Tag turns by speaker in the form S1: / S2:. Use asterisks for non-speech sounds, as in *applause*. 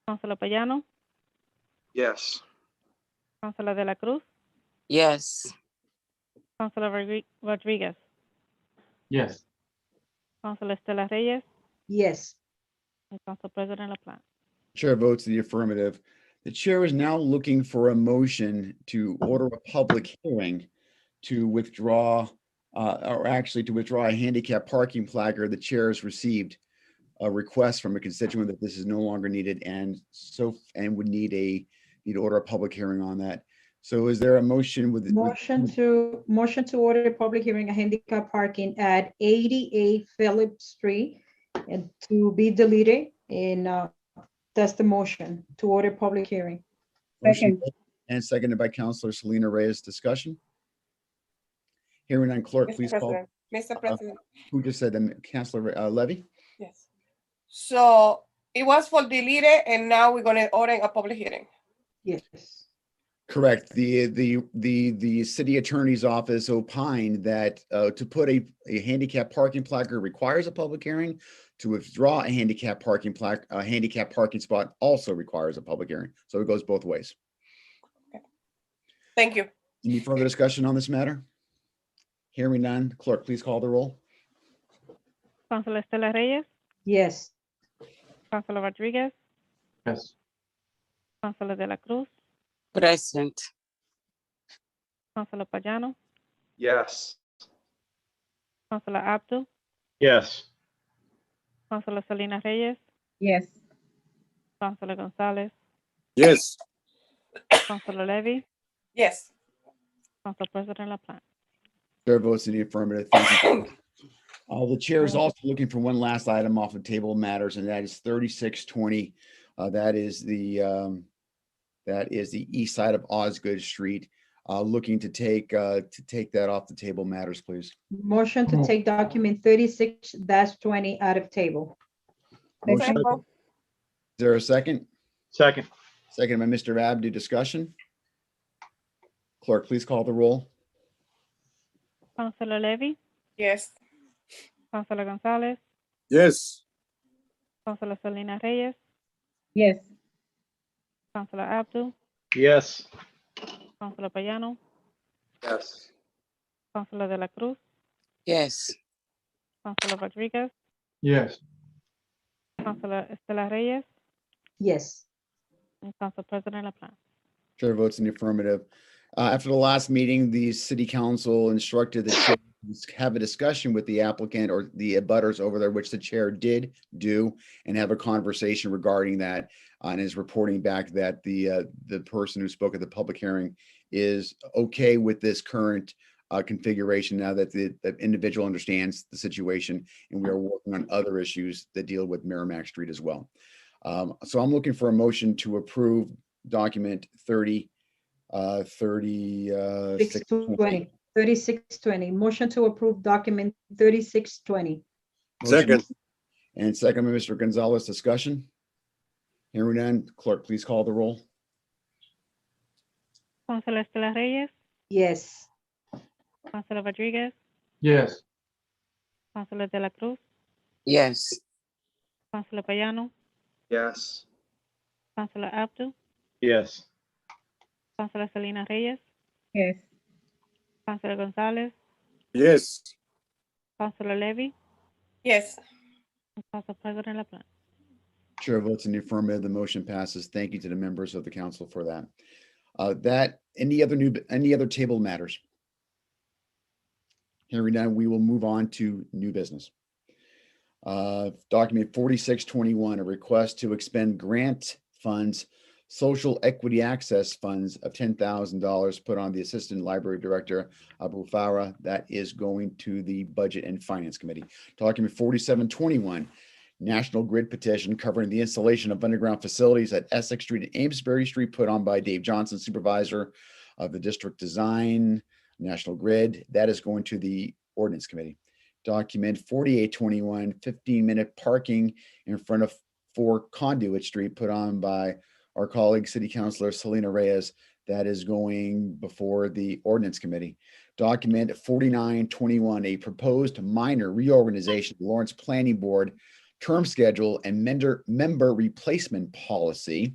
S1: Councilor Payano,
S2: Yes.
S1: Councilor De La Cruz,
S3: Yes.
S1: Councilor Rodri- Rodriguez,
S4: Yes.
S1: Councilor Estela Reyes,
S5: Yes.
S1: and Council President LaPlante.
S6: Chair votes in the affirmative. The chair is now looking for a motion to order a public hearing to withdraw, uh, or actually to withdraw a handicap parking placard. The chair has received a request from a constituent that this is no longer needed and so, and would need a, need to order a public hearing on that. So is there a motion with? with-
S5: Motion to, motion to order a public hearing, a handicap parking at 88 Phillips Street and to be deleted and uh, that's the motion to order public hearing.
S6: motion And seconded by Counselor Selena Reyes. Discussion? Hearing on clerk,
S7: Mr.
S6: please call. Uh,
S7: President, Mr. President,
S6: Who just said them? Counselor uh, Levy?
S7: yes. So it was for deleted and now we're gonna order a public hearing.
S5: Yes.
S6: Correct. The, the, the, the city attorney's office opined that uh, to put a, a handicap parking placard requires a public hearing. To withdraw a handicap parking plaque, a handicap parking spot also requires a public hearing. So it goes both ways.
S7: Thank you.
S6: Any further discussion on this matter? Hearing none. Clerk, please call the roll.
S1: Councilor Estela Reyes,
S5: Yes.
S1: Councilor Rodriguez,
S4: Yes.
S1: Councilor De La Cruz,
S3: Present.
S1: Councilor Payano,
S2: Yes.
S1: Councilor Abdul,
S4: Yes.
S1: Councilor Selena Reyes,
S7: Yes.
S1: Councilor Gonzalez,
S8: Yes.
S1: Councilor Levy,
S7: Yes,
S1: Council President LaPlante.
S6: Chair votes in the affirmative. Thank you. *coughs* Uh, the chair is also looking for one last item off of table matters, and that is thirty-six twenty. Uh, that is the, um, that is the east side of Osgood Street. Uh, looking to take, uh, to take that off the table matters, please.
S5: Motion to
S4: Move.
S5: take document 36 20 out of table.
S6: Motion- Is there a second?
S4: Second.
S6: Second by Mr. Abdu, discussion? Clerk, please call the roll.
S1: Councilor Levy,
S7: yes,
S1: Councilor Gonzalez,
S8: Yes.
S1: Councilor Selena Reyes,
S5: Yes.
S1: Councilor Abdul,
S4: Yes.
S1: Councilor Payano,
S2: Yes.
S1: Councilor De La Cruz,
S3: Yes.
S1: Councilor Rodriguez,
S4: Yes.
S1: Councilor Estela Reyes,
S5: Yes.
S1: and Council President LaPlante.
S6: Chair votes in the affirmative. Uh, After the last meeting, the city council instructed the chair to have a discussion with the applicant or the abutters over there, which the chair did do, and have a conversation regarding that, uh, and is reporting back that the, uh, the person who spoke at the public hearing is okay with this current uh, configuration now that the the individual understands the situation, and we are working on other issues that deal with Merrimack Street as well. Um, So I'm looking for a motion to approve document thirty, uh, thirty, uh.
S5: 620. 3620. Motion to approve document 3620.
S8: Second.
S6: And second by Mr. Gonzalez, discussion. Hearing none, clerk, please call the roll.
S1: Councilor Estela Reyes,
S5: Yes.
S1: Councilor Rodriguez,
S4: Yes.
S1: Councilor De La Cruz,
S3: Yes.
S1: Councilor Payano,
S2: Yes.
S1: Councilor Abdul,
S4: Yes.
S1: Councilor Selena Reyes,
S5: Yes.
S1: Councilor Gonzalez,
S8: Yes.
S1: Councilor Levy,
S7: yes.
S1: and Council President LaPlante.
S6: Chair votes in the affirmative, the motion passes. Thank you to the members of the council for that. Uh, that, any other new, any other table matters? Hearing none, we will move on to new business. Uh, document forty-six twenty-one, a request to expend grant funds, social equity access funds of ten thousand dollars put on the Assistant Library Director Abu Farah. That is going to the Budget and Finance Committee. Document forty-seven twenty-one, National Grid petition covering the installation of underground facilities at Essex Street and Amesbury Street, put on by Dave Johnson, Supervisor of the District Design, National Grid. That is going to the Ordinance Committee. Document 4821, 15-minute parking in front of 4 Conduit Street, put on by our colleague, City Councilor Selena Reyes. That is going before the Ordinance Committee. Document 4921, a proposed minor reorganization of Lawrence Planning Board term schedule and member, member replacement policy.